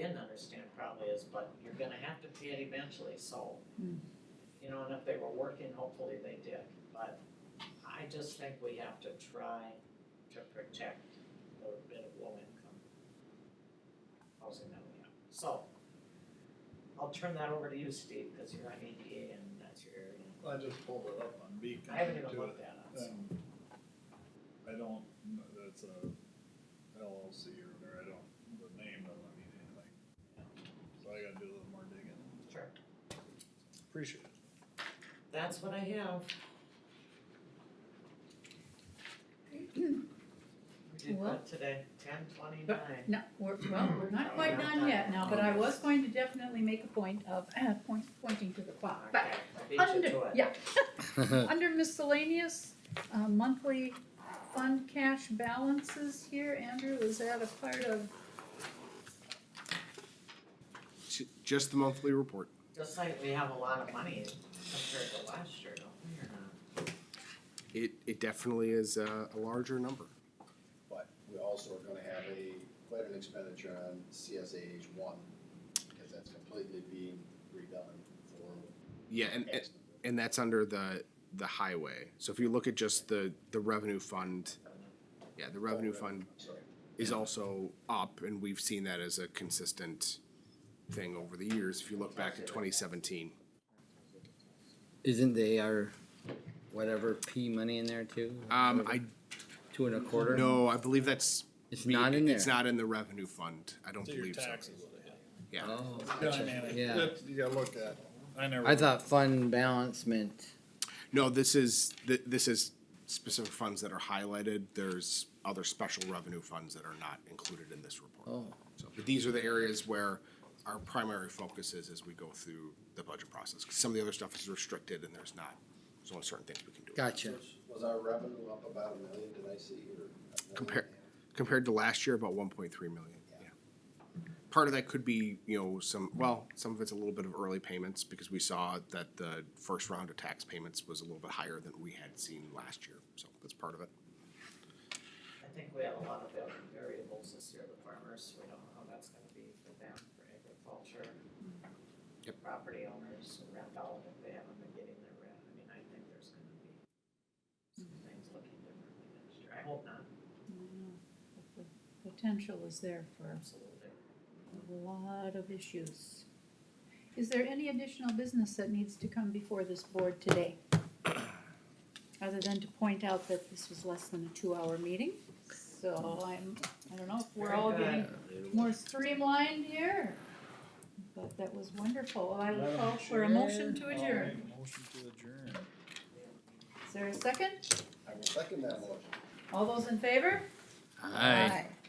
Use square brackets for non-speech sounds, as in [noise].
understand probably is, but you're gonna have to pay it eventually, so. You know, and if they were working, hopefully they did, but I just think we have to try to protect the bit of low income housing that we have. So, I'll turn that over to you, Steve, because you're on ADA and that's your area. I just pulled it up on Beacon. I haven't even too. looked at it, so. Um, I don't, kn- that's a LLC or whatever, I don't, know the name of, it, I mean, anything. So I gotta do a little more digging. Sure. Appreciate it. That's what I have. We did Well- good today, ten twenty-nine. No, we're, well, we're not quite done yet now, but I was going to definitely make a point of, [clears throat] uh, point, pointing to the clock. Okay, But I beat you under, to it. yeah, [laughs] under miscellaneous, uh, monthly fund cash balances here, Andrew, was that a part of, Ju- Just the monthly report. Just like we have a lot of money compared to last year, don't we, or not? It, it definitely is a, a larger number. But we also are gonna have a, quite an expenditure on CSAH one, because that's completely being redone for Yeah, and, and, X number. and that's under the, the highway. So if you look at just the, the revenue fund, yeah, the revenue fund I'm sorry. is also up, and we've seen that as a consistent thing over the years, if you look back to twenty seventeen. Isn't the AR whatever P money in there too? Um, I, Two and a quarter? no, I believe that's. It's not in there. It's not in the revenue fund, I don't So your believe so. taxes will hit. Yeah, Oh, Yeah, I mean, Yeah. that- You gotta look at, I never. I thought fund balance meant, no, this is, th- this is specific funds that are highlighted, there's other special revenue funds that are not included in this report. oh, So, but these are the areas where our primary focus is as we go through the budget process. 'Cause Some of the other stuff is restricted and there's not, there's only certain things we can do. gotcha. Was our revenue up about a million, did I see, or? a million? Compare- Compared to last year, about one point three million, Yeah. yeah. Part of that could be, you know, some, well, some of it's a little bit of early payments because we saw that the first round of tax payments was a little bit higher than we had seen last year. So that's part of it. I think we have a lot of vari- variables this year, the farmers, we don't know how that's gonna be for them, for agriculture. Yep. Property owners, and rent out if they haven't been getting their rent, I mean, I think there's gonna be some things looking differently next year, I hope not, potential is there for absolutely. a lot of issues. Is there any additional business that needs to come before this board today? Other than to point out that this was less than a two-hour meeting, so I'm, I don't know if we're Very all good. getting more streamlined here. But that was wonderful, I will call for a motion to adjourn. Alright, Motion to adjourn. Is there a second? I will second that motion. All those in favor? Aye. Aye.